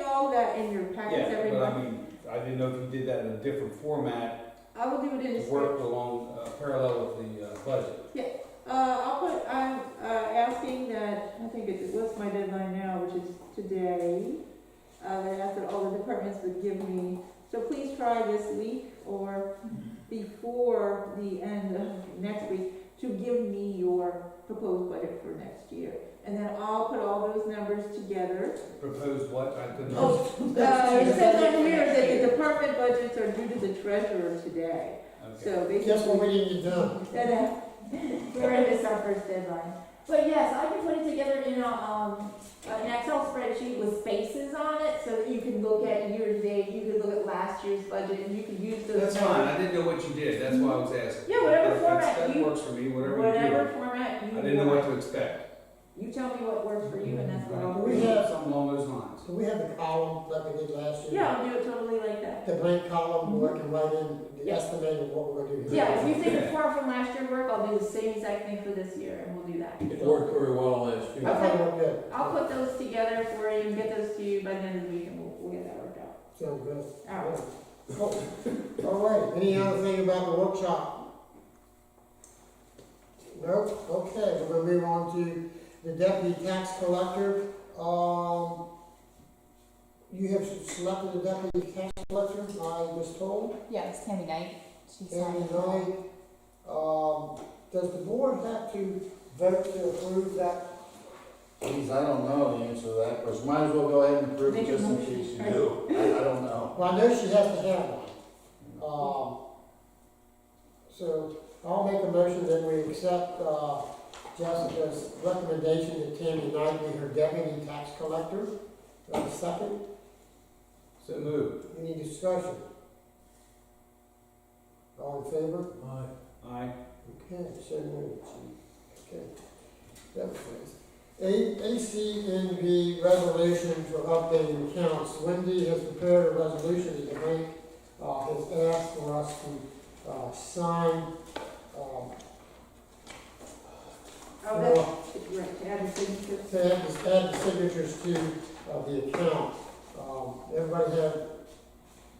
that in your packets Yeah, every but I month. mean, I didn't know if you did that in a different format, I will do it in a worked script. along, uh, parallel with the, uh, budget. Uh, I'll put, I'm, uh, asking that, I think it, what's my deadline now, which is today. Uh, I asked that all the departments would give me, so please try this week or before the end of next week to give me your proposed budget for next year. And then I'll put all those numbers together Proposed what, I couldn't. Oh, Uh, it says on here that the department budgets are due to the treasurer today, Okay. so basically. Guess what we need to do? That, uh, We're gonna miss our first deadline. But yes, I can put it together in a, um, an Excel spreadsheet with spaces on it, so that you can look at year to date, you can look at last year's budget, and you can use those. That's fine, I didn't know what you did, that's why I was asking. Yeah, whatever That- that's- format That you- works for me, whatever you Whatever do. format I didn't know you what want. to expect. You tell me what works for you, and that's what I'll We do. have- Something along those lines. Do we have the column like we did last year? Yeah, I'll do it totally like that. The blank column where I can write in the Yeah. estimate of what we're gonna do. here. Yeah, if you think it's far from last year's work, I'll do the same exact thing for this year, and we'll do that. It worked very well last I year. thought it was good. I'll put those together for you and get those to you by the end of the week, and we'll, we'll get that worked out. Sounds good. All right. Oh, All right, any other thing about the workshop? Nope, okay, we're gonna move on to the deputy tax collector. Um, you have selected the deputy tax collector, I was told, Yeah, it's Tammy Knight. She's and tonight, um, does the board have to vote to approve that? Geez, I don't know the answer to that question. Might as well go ahead and approve it Make a just in motion. case you do. I, I don't know. Well, I know she has to have one. Um, so I'll make a motion that we accept, uh, Jessica's recommendation that Tammy Knight be her deputy tax collector. Do I have a second? So move. Any discussion? All in favor? Aye. Okay, so moved. Okay. That was nice. A, ACNV resolution for updating accounts. Wendy has prepared a resolution that the bank, uh, has asked for us to, uh, sign, um, Oh, that's for- right, to add the signature. to add the, add the signatures to, uh, the account. Um, everybody have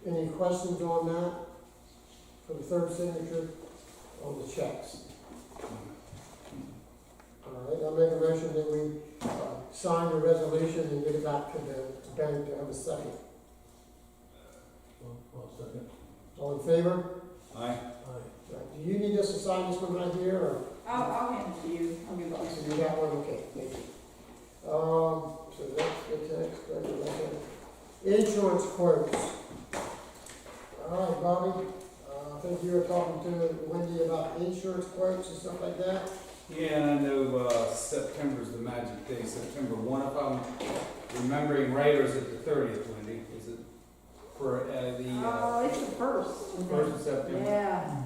any questions on that? For the third signature on the checks? All right, I'll make a motion that we, uh, sign the resolution and get it back to the bank to have a second. All in favor? Aye. Right, Do you need us to sign this one right here, or? I'll, I'll hand it to you, I'll give it to you. So you got one, okay, thank you. Um, so that's the tax, that's the Insurance quotes. All right, Bobby, uh, I think you were talking to Wendy about insurance quotes and stuff like that. Yeah, and I know, uh, September's the magic day, September one, if I'm remembering right, or is it the thirtieth, Wendy? Is it for, uh, the, uh, Oh, it's the first. first of September? Yeah.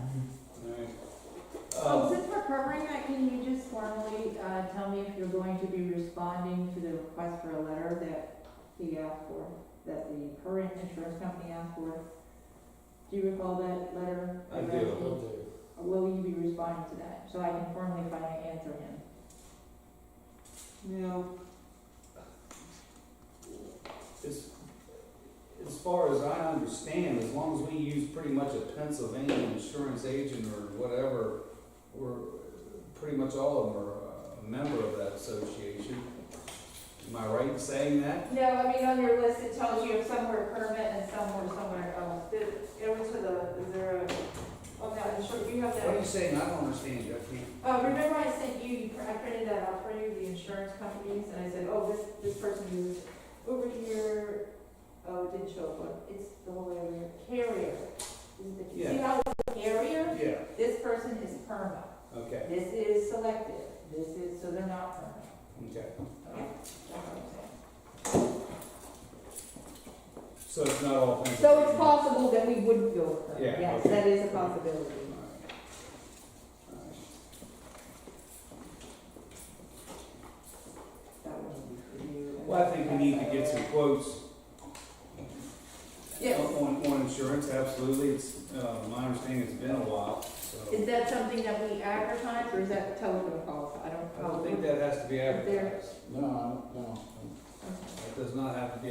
Alright. Oh, Uh, since we're covering that, can you just formally, uh, tell me if you're going to be responding to the request for a letter that he asked for, that the current insurance company asked for? Do you recall that letter? I read? do. Will you be responding to that, so I can formally finally answer him? Now, as, as far as I understand, as long as we use pretty much a Pennsylvania insurance agent or whatever, we're, pretty much all of them are uh, a member of that association. Am I right in saying that? No, I mean, on your list, it tells you if some were permit and some were somewhere else. It was to the, is there a, oh, on that insurance, you have What are you saying? I don't understand you. I can't- Uh, remember I sent you, you pr- I printed that out for you, the insurance companies, and I said, oh, this, this person is over here, oh, it didn't show up, on- it's the whole way over here, carrier. This is the- See Yeah. how it's carrier, Yeah, this person is perma, okay, this is selective, this is, so they're not perma. okay. Okay, that's what I'm saying. So it's not all So Pennsylvania? it's possible that we wouldn't go with them, Yeah, yes, okay. that is a possibility. All right. All right. That would be for you. Well, I think we need to get some quotes. Yes. On, on insurance, absolutely, it's, uh, my understanding it's been a while, so. Is that something that we advertise, or is that telephone calls, I don't. I don't think that has to be advertised, No, I don't know. Okay. that does not have to be